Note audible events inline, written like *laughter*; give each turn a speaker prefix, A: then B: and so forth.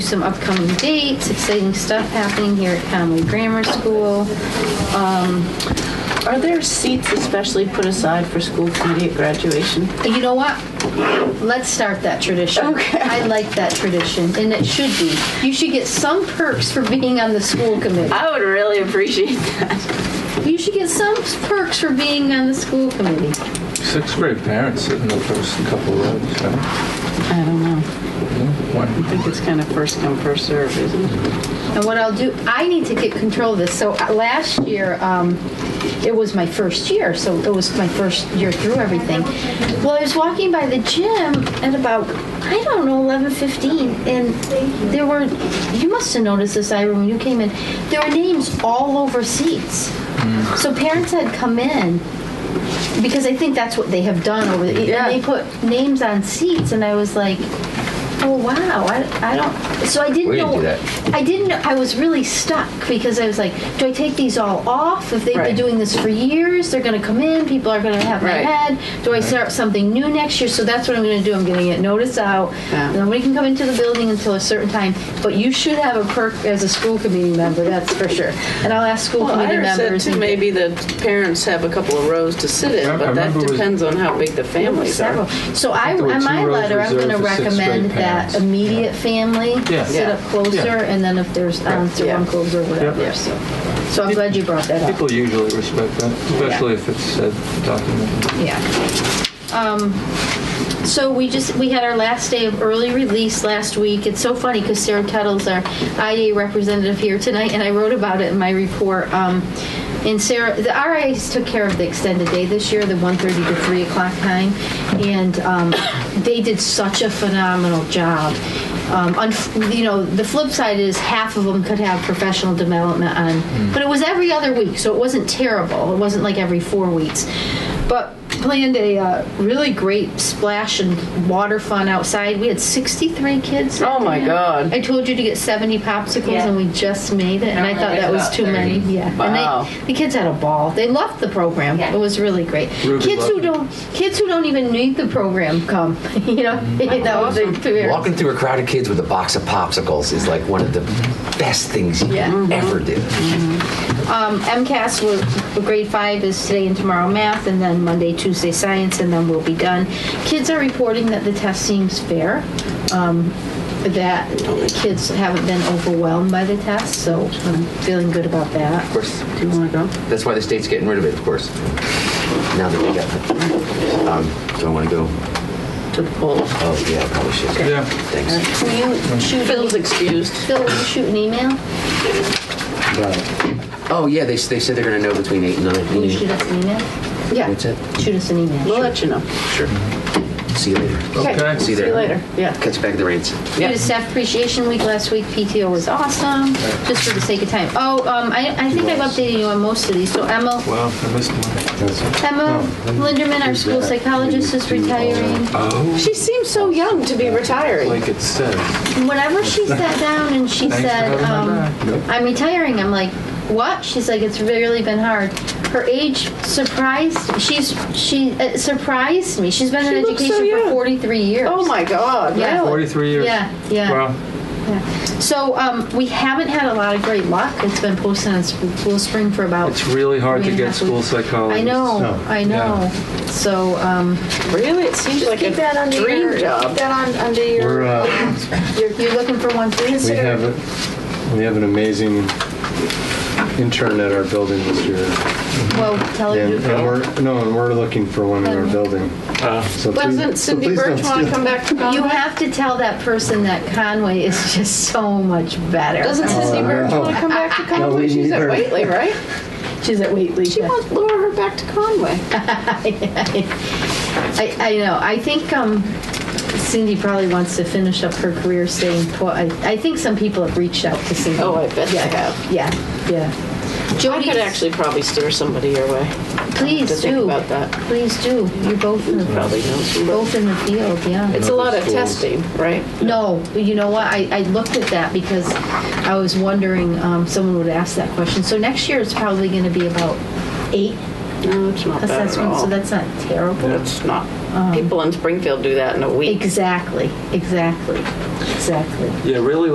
A: some upcoming dates, exciting stuff happening here at Conway Grammar School. Um,
B: Are there seats especially put aside for school committee at graduation?
A: You know what? Let's start that tradition.
B: Okay.
A: I like that tradition, and it should be. You should get some perks for being on the school committee.
B: I would really appreciate that.
A: You should get some perks for being on the school committee.
C: Sixth grade parents sit in the first couple rows. right?
B: I don't know. I
C: Why-
B: think it's kind of first come, first serve, isn't it?
A: And what I'll do, I need to get control of this. So uh, last year, um, it was my first year, so it was my first year through everything. Well, I was walking by the gym at about, I don't know, eleven fifteen, and there were, you must have noticed this, Ira, when you came in, there were names all over seats.
D: Mm.
A: So parents had come in because I think that's what they have done over the.
B: Yeah.
A: And they put names on seats, and I was like, oh wow, I, I don't. So I didn't
D: We didn't
A: know.
D: do that.
A: I didn't. know- I was really stuck because I was like, do I take these all off? If they've been
B: Right.
A: doing this for years, they're going to come in. People are going to have
B: Right.
A: my head. Do I start something new next year? So that's what I'm going to do. I'm going to get notice out.
B: Yeah.
A: Nobody can come into the building until a certain time. But you should have a perk as a school committee member. That's for sure. And I'll ask school
B: Well,
A: committee
B: I said
A: members.
B: too,
A: and-
B: maybe the parents have a couple of rows to sit
C: I-
B: in,
C: I
B: but that
C: remember it was-
B: depends on how big the families
A: Several.
B: are.
A: So I,
C: there were
A: on
C: two
A: my
C: rows
A: letter, I'm
C: reserved
A: going to
C: for sixth grade
A: recommend that
C: parents.
A: immediate family
C: Yeah.
A: sit up
B: Yeah.
A: closer, and then if there's aunts or
B: Yeah.
A: uncles or whatever,
C: Yeah.
A: so. So I'm glad you brought that up,
C: People usually respect that, especially if it's uh, documented.
A: yeah. Um, So we just, we had our last day of early release last week. It's so funny because Sarah Kettles, our IA representative here tonight, and I wrote about it in my report. Um, And Sarah, the RIAs took care of the extended day this year, the 1:30 to 3 o'clock time, and um, they did such a phenomenal job. Um, unf- You know, the flip side is half of them could have professional development on, but it was every other week, so it wasn't terrible. It wasn't like every four weeks. But planned a uh, really great splash and water fun outside. We had 63 kids.
B: Oh my God.
A: I told you to get 70 popsicles,
E: Yeah.
A: and we just made it. And I thought
E: It's
A: that was
E: about
A: too
E: 30.
A: many. Yeah.
B: Wow.
A: And they, the kids had a ball. They loved the program.
E: Yeah.
A: It was really great.
C: Ruby
A: kids who
C: loved it.
A: don't kids who don't even need the program come. *laughs* you know, that was the experience.
D: Walking through a crowd of kids with a box of popsicles is like one of the best things you
B: Mm-hmm.
D: can ever do.
A: Um, MCAS will, for grade five is today and tomorrow math, and then Monday, Tuesday science, and then we'll be done. Kids are reporting that the test seems fair. Um, that kids haven't been overwhelmed by the test, so I'm feeling good about that.
D: Of course,
B: Do you want to go?
D: that's why the state's getting rid of it. Of course, now that we got. Um, do I want to go?
B: To the polls.
D: Oh yeah, I probably should.
C: Yeah.
D: Thanks.
A: Will you shoot,
B: Phil's excused.
A: Phil, will you shoot an email?
D: Oh yeah, they, they said they're going to know between eight and nine.
A: Will you shoot us an email? Yeah.
D: What's that?
A: Shoot us an email.
B: We'll let you know.
D: Sure. See you later.
C: Okay.
D: See you
B: Oh. See
D: there.
B: you later. Yeah.
D: Catch you back at the reins.
A: We
B: Yeah.
A: did staff appreciation week last week. PTO was awesome, just for the sake of time. Oh, um, I, I think I've updated you on most of these. So Emma,
C: Wow, I missed one. Oh,
A: Emma Linderman, our school psychologist, is retiring.
B: She seems so young to be retiring.
C: Oh. Like it says.
A: Whenever
C: *laughs*
A: she sat down and she
C: Thanks for
A: said,
C: having my
A: um,
C: back. Nope.
A: I'm retiring, I'm like, what? She's like, it's really been hard. Her age surprised, she's, she uh, surprised me. She's been
B: She
A: in
B: looks so
A: education for
B: young.
A: 43 years.
B: Oh my God.
A: Yeah.
B: Really?
C: 43 years.
A: Yeah, yeah.
C: Wow.
A: Yeah. So um, we haven't had a lot of great luck. It's been posted on Sp- School Spring for about.
C: It's really hard
A: three
C: to
A: and a
C: get
A: half
C: school
A: weeks.
C: psychologists.
A: I know, I know. So um,
B: Really? It seems like
E: Keep that
B: a
E: under your,
B: dream
E: keep
B: job.
E: that on, under your,
F: We're, uh,
A: you're looking for one for
F: we
A: yourself.
F: have, a- we have an amazing intern at our building this year.
A: Well, tell her
F: And
A: to
F: and we're, no, and we're looking for one in our building. So please-
B: Doesn't
F: so
B: Cindy
F: please don't
B: Birch want to
F: steal-
B: come back to
A: You
B: Conway?
A: have to tell that person that Conway is *laughs* just so much better.
B: Doesn't Cindy Birch want to come back to Conway?
F: we
B: She's
F: need
B: at
F: her.
B: Waitley, right?
A: She's at Wheatley.
B: She wants to lure her back to Conway.
A: *laughs* I, I know. I think um, Cindy probably wants to finish up her career staying put. I, I think some people have reached out to Cindy.
B: Oh, I bet they
A: yeah,
B: have.
A: Yeah, yeah.
B: I
A: Jody,
B: could actually probably steer somebody your way.
A: please
B: to
A: do.
B: think about that.
A: Please do. You're both in the
B: Probably knows you, but-
A: both in the field. Yeah.
B: It's a lot of testing, right?
A: No, you know what? I, I looked at that because I was wondering um, someone would ask that question. So next year it's probably going to be about eight
B: No, it's not bad at
A: assessments.
B: all.
A: So that's not terrible.
B: That's not, people in Springfield do that in a week.
A: Exactly. Exactly. Exactly.
C: Yeah, really